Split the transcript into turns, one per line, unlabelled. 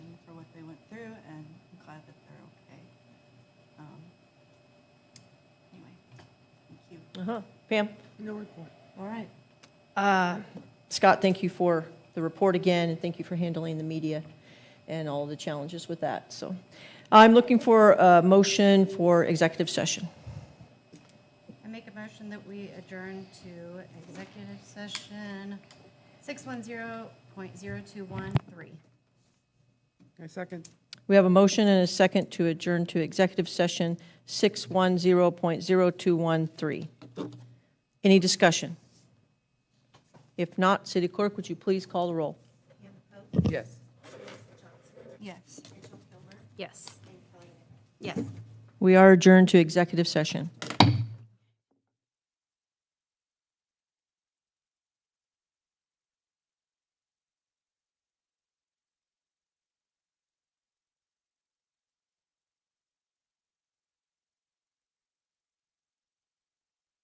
Uh-huh. Pam?
No report.
All right. Uh, Scott, thank you for the report again, and thank you for handling the media and all the challenges with that. So I'm looking for a motion for executive session.
I make a motion that we adjourn to executive session 610.0213.
I second.
We have a motion and a second to adjourn to executive session 610.0213. Any discussion? If not, City Clerk, would you please call the roll?
Yes.
Yes. Yes. Yes.
We are adjourned to executive session.